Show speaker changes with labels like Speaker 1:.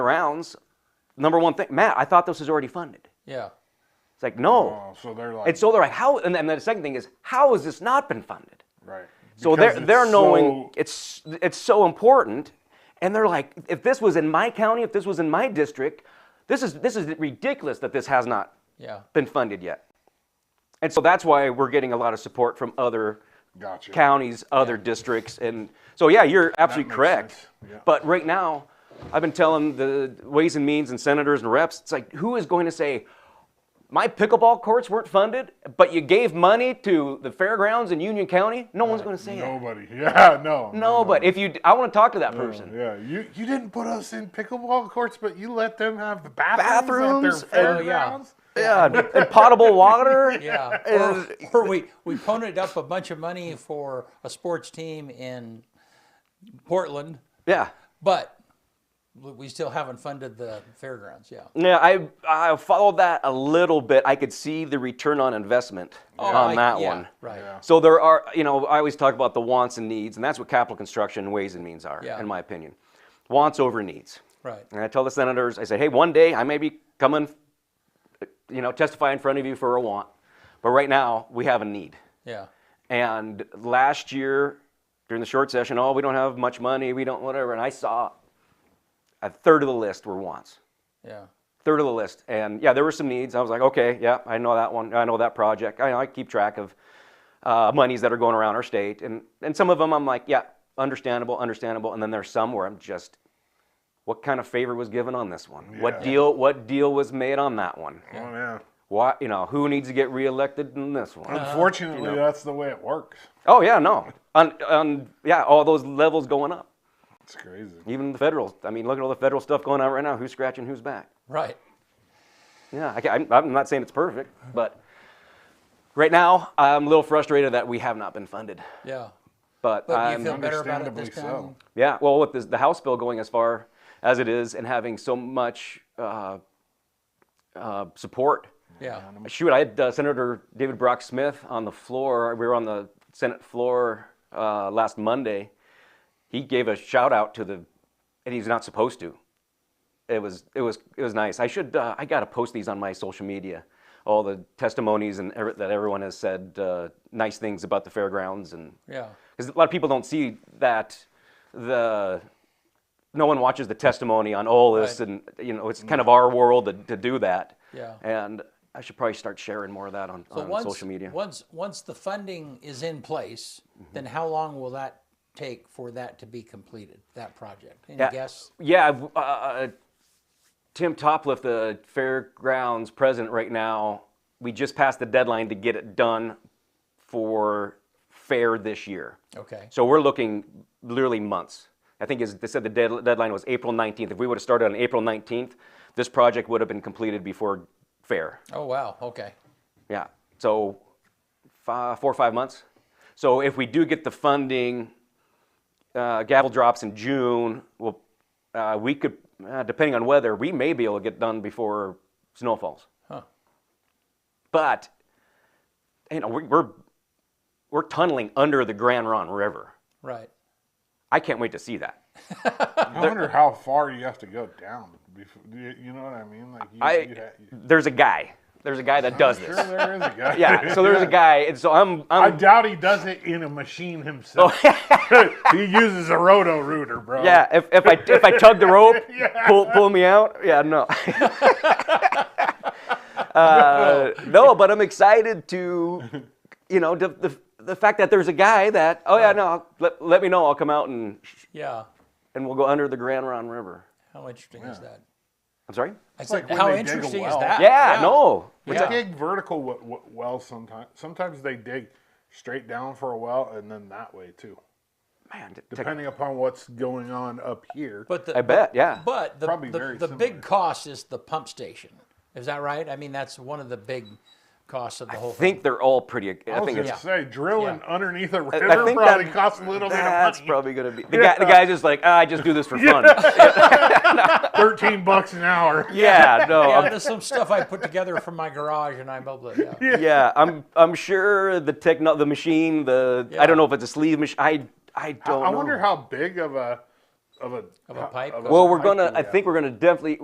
Speaker 1: rounds, number one thing, Matt, I thought this was already funded.
Speaker 2: Yeah.
Speaker 1: It's like, no.
Speaker 3: Oh, so they're like
Speaker 1: And so they're like, how? And then the second thing is, how has this not been funded?
Speaker 3: right.
Speaker 1: So
Speaker 3: Because
Speaker 1: they're
Speaker 3: it's
Speaker 1: they're knowing
Speaker 3: so-
Speaker 1: it's it's so important, and they're like, if this was in my county, if this was in my district, this is this is ridiculous that this has not
Speaker 2: Yeah.
Speaker 1: been funded yet. And so that's why we're getting a lot of support from other
Speaker 3: Gotcha.
Speaker 1: counties, other districts, and so yeah, you're absolutely
Speaker 3: makes
Speaker 1: correct.
Speaker 3: sense, yeah.
Speaker 1: But right now, I've been telling the Ways and Means and senators and reps, it's like, who is going to say? My pickleball courts weren't funded, but you gave money to the fairgrounds in Union County. No one's going to say that.
Speaker 3: Nobody. Yeah, no.
Speaker 1: No, but if you, d- I want to talk to that person.
Speaker 3: Yeah, you, you didn't put us in pickleball courts, but you let them have the
Speaker 1: Bathrooms
Speaker 3: bathrooms, at
Speaker 1: and-
Speaker 3: their
Speaker 1: Oh,
Speaker 2: yeah.
Speaker 3: fairgrounds.
Speaker 1: Yeah, and- and potable water.
Speaker 2: Yeah. Or,
Speaker 1: And-
Speaker 2: or we, we punted up a bunch of money for a sports team in Portland,
Speaker 1: yeah,
Speaker 2: but we still haven't funded the fairgrounds. Yeah.
Speaker 1: yeah. I I followed that a little bit. I could see the return on investment on
Speaker 2: Oh, I-
Speaker 1: that
Speaker 2: yeah,
Speaker 1: one.
Speaker 2: Right.
Speaker 1: So there are, you know, I always talk about the wants and needs, and that's what capital construction ways and means are,
Speaker 2: Yeah.
Speaker 1: in my opinion. Wants over needs.
Speaker 2: Right.
Speaker 1: And I tell the senators, I say, hey, one day I may be coming, you know, testify in front of you for a want, but right now we have a need.
Speaker 2: Yeah.
Speaker 1: And last year, during the short session, oh, we don't have much money, we don't whatever. And I saw a third of the list were wants,
Speaker 2: Yeah.
Speaker 1: third of the list. And yeah, there were some needs. I was like, okay, yeah, I know that one, I know that project. I, I keep track of uh, monies that are going around our state, and and some of them I'm like, yeah, understandable, understandable. And then there's some where I'm just, what kind of favor was given on this one? What
Speaker 3: Yeah.
Speaker 1: deal? What deal was made on that one?
Speaker 3: Oh yeah.
Speaker 1: Why, you know, who needs to get reelected in this one?
Speaker 3: Unfortunately, that's the way it works.
Speaker 1: Oh yeah, no. On, on yeah, all those levels going up.
Speaker 3: It's crazy.
Speaker 1: Even the federal. I mean, look at all the federal stuff going on right now. Who's scratching who's back?
Speaker 2: Right.
Speaker 1: Yeah, I, am I'm not saying it's perfect, but right now I'm a little frustrated that we have not been funded.
Speaker 2: Yeah.
Speaker 1: But,
Speaker 2: But do
Speaker 1: I'm,
Speaker 2: you feel better about it this time?
Speaker 3: understandably so.
Speaker 1: yeah, well, with this, the House bill going as far as it is and having so much uh, uh, support
Speaker 2: Yeah.
Speaker 1: Shoot, I had uh, Senator David Brock Smith on the floor. We were on the Senate floor uh, last Monday. He gave a shout out to the, and he's not supposed to. It was it was it was nice. I should uh, I gotta post these on my social media, all the testimonies and every, that everyone has said uh, nice things about the fairgrounds and
Speaker 2: Yeah.
Speaker 1: because a lot of people don't see that the no one watches the testimony on all this
Speaker 2: Right. Mm-hmm.
Speaker 1: and you know it's kind of our world to, to do that
Speaker 2: Yeah.
Speaker 1: and i should probably start sharing more of that on,
Speaker 2: So
Speaker 1: on
Speaker 2: once,
Speaker 1: social media Mm-hmm.
Speaker 2: Once once the funding is in place, then how long will that take for that to be completed? That project? Any
Speaker 1: Yeah.
Speaker 2: guess?
Speaker 1: yeah I've, uh, uh, tim topliff the fairgrounds president right now we just passed the deadline to get it done for fair this year
Speaker 2: Okay.
Speaker 1: So we're looking literally months. I think as they said the dead, deadline was April 19th. If we would have started on April 19th, this project would have been completed before fair.
Speaker 2: Oh wow. Okay.
Speaker 1: Yeah. So five, four or five months. So if we do get the funding, uh, gavel drops in June. We'll, uh, we could, uh, depending on weather, we may be able to get done before snow falls.
Speaker 2: Huh.
Speaker 1: But you know we, we're we're tunneling under the Grand Ron River.
Speaker 2: Right.
Speaker 1: I can't wait to see that.
Speaker 3: I wonder how far you have to go down. Before, you, you know what I mean? Like you,
Speaker 1: I
Speaker 3: you ha- you-
Speaker 1: there's a guy. There's a guy that does
Speaker 3: sure
Speaker 1: this.
Speaker 3: there is a guy.
Speaker 1: Yeah. So there's a guy, and so I'm
Speaker 3: I
Speaker 1: I'm
Speaker 3: doubt he does it in a machine himself. he uses a roto rooter, bro.
Speaker 1: Oh. yeah. If, if I if I tug the rope, pull pull me out. Yeah. No. uh, no, but I'm excited to, you know, the, the the fact that there's a guy that oh yeah no I'll- let let me know I'll come out and
Speaker 2: Yeah.
Speaker 1: and we'll go under the Grand Ron River.
Speaker 2: How interesting is that?
Speaker 1: I'm sorry.
Speaker 2: I said,
Speaker 3: like when
Speaker 2: how
Speaker 3: they dig a
Speaker 2: interesting is
Speaker 3: well.
Speaker 2: that?
Speaker 1: Yeah. No.
Speaker 3: They
Speaker 2: Yeah.
Speaker 3: dig vertical w- w- well sometimes. Sometimes they dig straight down for a well and then that way too.
Speaker 1: Man. t- t-
Speaker 3: Depending upon what's going on up here.
Speaker 2: But the,
Speaker 1: I bet. Yeah.
Speaker 2: But the,
Speaker 3: Probably
Speaker 2: the,
Speaker 3: very
Speaker 2: the big
Speaker 3: similar.
Speaker 2: cost is the pump station. Is that right? I mean, that's one of the big costs of the whole
Speaker 1: I think they're all pretty. I,
Speaker 3: I was
Speaker 1: think
Speaker 3: gonna
Speaker 1: it's
Speaker 3: say drilling
Speaker 2: Yeah.
Speaker 3: underneath a
Speaker 1: I
Speaker 3: river
Speaker 1: think
Speaker 3: probably
Speaker 1: that-
Speaker 3: costs a little bit of
Speaker 1: That's
Speaker 3: money.
Speaker 1: probably gonna be the guy. The guy's just like, ah, I just do this for fun.
Speaker 3: Thirteen bucks an hour.
Speaker 1: yeah, no,
Speaker 2: thing. Yeah,
Speaker 1: I'm,
Speaker 2: there's some stuff I put together from my garage and I'm able to. Yeah.
Speaker 1: yeah, I'm, I'm sure the techno, the machine, the, I don't know if it's a sleeve machine. I, I don't
Speaker 3: I
Speaker 1: know.
Speaker 3: wonder how big of a of a
Speaker 2: Of a pipe
Speaker 3: of
Speaker 2: going-
Speaker 1: Well, we're gonna.
Speaker 3: pipe,
Speaker 1: I
Speaker 3: yeah.
Speaker 1: think we're gonna definitely.